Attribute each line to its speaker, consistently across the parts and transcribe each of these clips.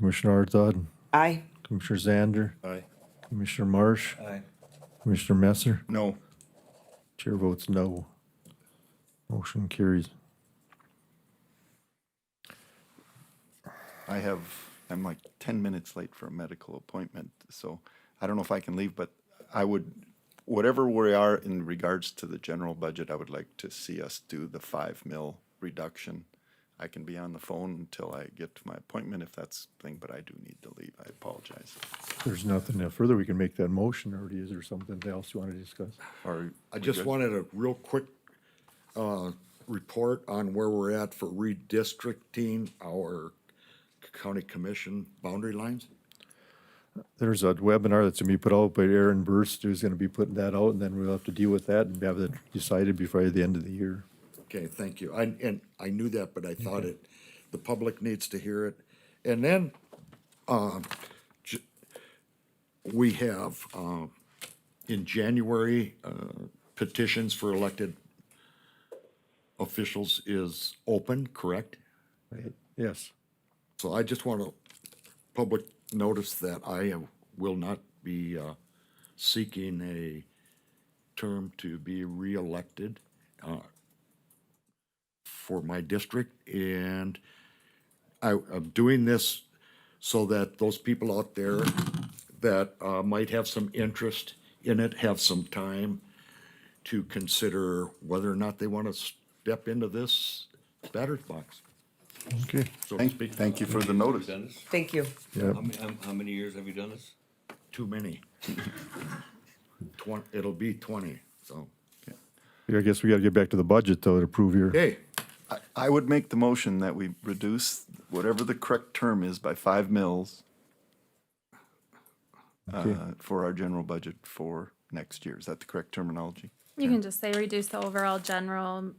Speaker 1: Commissioner Arthod,
Speaker 2: Aye.
Speaker 1: Commissioner Zander,
Speaker 3: Aye.
Speaker 1: Commissioner Marsh,
Speaker 3: Aye.
Speaker 1: Commissioner Messer.
Speaker 3: No.
Speaker 1: Chair votes no. Motion carries.
Speaker 3: I have, I'm like 10 minutes late for a medical appointment, so I don't know if I can leave, but I would, whatever we are in regards to the general budget, I would like to see us do the 5 mil reduction. I can be on the phone until I get to my appointment if that's the thing, but I do need to leave. I apologize.
Speaker 1: If There's nothing uh, further. We can make that motion or is there something else you want to discuss?
Speaker 3: Or
Speaker 4: I just wanted a real quick uh, report on where we're at for redistricting our county commission boundary lines.
Speaker 1: There's a webinar that's going to be put out by Aaron Burst who's going to be putting that out and then we'll have to deal with that and have it decided before the end of the year.
Speaker 4: Okay, thank you. I, and I knew that, but I thought it, the public needs to hear it. And then, um, j- we have, um, in January, uh, petitions for elected officials is open, correct?
Speaker 1: Right? Yes.
Speaker 4: So I just want to public notice that I uh, will not be uh, seeking a term to be reelected uh, for my district, and I, I'm doing this so that those people out there that uh, might have some interest in it have some time to consider whether or not they want to step into this batter's box,
Speaker 1: Okay.
Speaker 4: so to
Speaker 3: Thank,
Speaker 4: speak.
Speaker 3: thank you for the notice.
Speaker 5: Done this?
Speaker 2: Thank you.
Speaker 1: Yeah.
Speaker 5: How many, how- how many years have you done this?
Speaker 4: too many. Twen- it'll be twenty, so,
Speaker 1: I guess we got to get back to the budget though to approve your.
Speaker 4: hey,
Speaker 3: I- I would make the motion that we reduce whatever the correct term is by five mils uh, for our general budget for next year. Is that the correct terminology?
Speaker 6: You can just say reduce the overall general,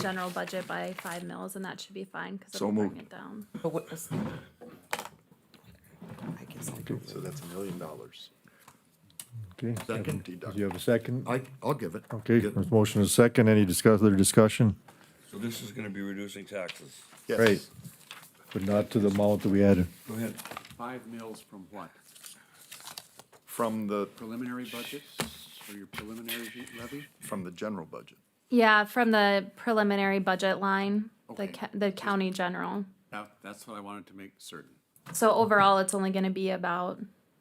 Speaker 6: general budget by five mils, and that should be fine, because
Speaker 3: So
Speaker 6: it'll bring
Speaker 3: moved.
Speaker 6: it down.
Speaker 2: But what was? I guess I'll do
Speaker 3: So that's a million dollars.
Speaker 1: Okay.
Speaker 4: Second.
Speaker 1: Do you have a second?
Speaker 4: I, I'll give it.
Speaker 1: Okay,
Speaker 4: Get-
Speaker 1: there's motion is second. Any discuss, other discussion?
Speaker 5: So this is gonna be reducing taxes.
Speaker 3: Yes.
Speaker 1: Right. But not to the amount that we had.
Speaker 5: Go ahead.
Speaker 7: Five mils from what?
Speaker 3: From the,
Speaker 7: Preliminary budget or your preliminary levy?
Speaker 3: from the general budget.
Speaker 6: Yeah, from the preliminary budget line, the,
Speaker 7: Okay.
Speaker 6: ca- the county general.
Speaker 7: Now, that's what I wanted to make certain.
Speaker 6: So overall, it's only gonna be about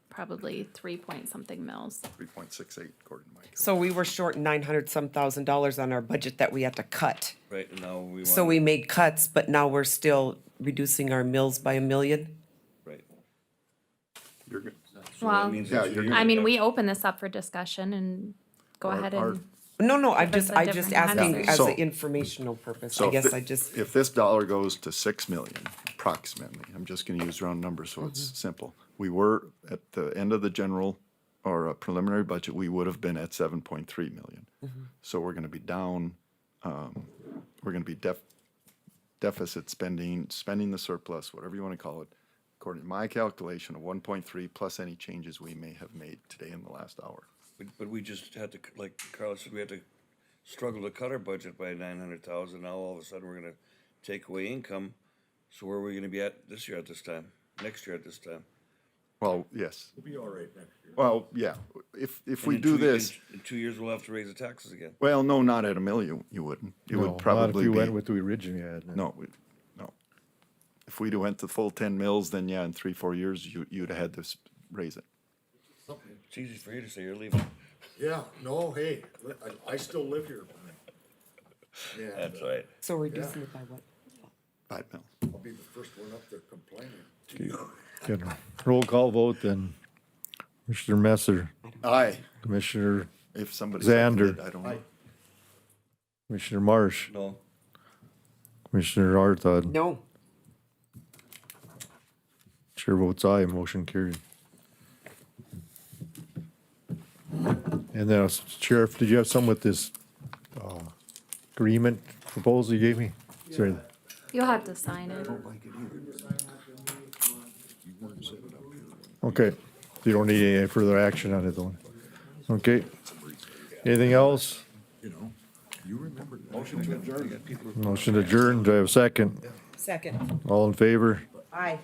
Speaker 6: probably three point something mils.
Speaker 3: Three point six eight, according to Mike.
Speaker 2: So we were short nine hundred some thousand dollars on our budget that we had to cut.
Speaker 5: Right, and now we want.
Speaker 2: So we made cuts, but now we're still reducing our mills by a million?
Speaker 5: Right.
Speaker 3: You're good.
Speaker 5: So that
Speaker 6: Well,
Speaker 5: means
Speaker 3: Yeah,
Speaker 5: that
Speaker 3: you're-
Speaker 5: you're-
Speaker 6: I mean, we open this up for discussion and go ahead and,
Speaker 2: No, no, I'm
Speaker 6: That's
Speaker 2: just,
Speaker 6: a
Speaker 2: I just
Speaker 6: different kind of
Speaker 2: asking
Speaker 6: thing.
Speaker 2: as an
Speaker 3: So-
Speaker 2: informational purpose.
Speaker 3: So
Speaker 2: I
Speaker 3: if
Speaker 2: guess
Speaker 3: thi-
Speaker 2: I just,
Speaker 3: If this dollar goes to six million approximately, I'm just gonna use round numbers so
Speaker 2: Mm-hmm.
Speaker 3: it's simple. We were at the end of the general or uh, preliminary budget, we would have been at seven point three million.
Speaker 2: Mm-hmm.
Speaker 3: So we're gonna be down, um, we're gonna be def- deficit spending, spending the surplus, whatever you wanna call it. According to my calculation of one point three plus any changes we may have made today in the last hour.
Speaker 5: But- But we just had to, like Carlos said, we had to struggle to cut our budget by nine hundred thousand. Now all of a sudden, we're gonna take away income. So where are we gonna be at this year at this time? Next year at this time?
Speaker 3: Well, yes,
Speaker 4: We'll be all right next year.
Speaker 3: well, yeah, if, if
Speaker 5: And
Speaker 3: we
Speaker 5: in
Speaker 3: do
Speaker 5: two- in-
Speaker 3: this.
Speaker 5: In two years, we'll have to raise the taxes again.
Speaker 3: Well, no, not at a mill, you, you wouldn't. You
Speaker 1: No,
Speaker 3: would
Speaker 1: not
Speaker 3: probably
Speaker 1: If you went
Speaker 3: be,
Speaker 1: with the original you had.
Speaker 3: no, we- no. If we'd went to full ten mills, then yeah, in three, four years, you, you'd have had to s- raise it.
Speaker 5: It's easy for you to say you're leaving.
Speaker 4: Yeah, no, hey, li- I, I still live here. Yeah,
Speaker 5: That's right.
Speaker 2: so reducing it by what?
Speaker 3: Five mills.
Speaker 4: I'll be the first one up there complaining.
Speaker 1: Good. Roll call vote then. Commissioner Messer,
Speaker 3: Aye.
Speaker 1: Commissioner,
Speaker 3: If somebody.
Speaker 1: Xander.
Speaker 3: seconded, I don't know.
Speaker 1: Commissioner Marsh,
Speaker 5: No,
Speaker 1: Commissioner Arthod.
Speaker 2: No,
Speaker 1: Chair votes aye, motion carried. And then uh, Sheriff, did you have some with this uh, agreement proposal you gave me? Is there-
Speaker 6: you'll have to sign it.
Speaker 1: Okay, you don't need any further action on it though. Okay. Anything else?
Speaker 4: You know, you remember.
Speaker 5: motion to adjourn. You got people
Speaker 1: Motion adjourned. Do I have a second?
Speaker 2: second.
Speaker 1: All in favor?
Speaker 2: Aye.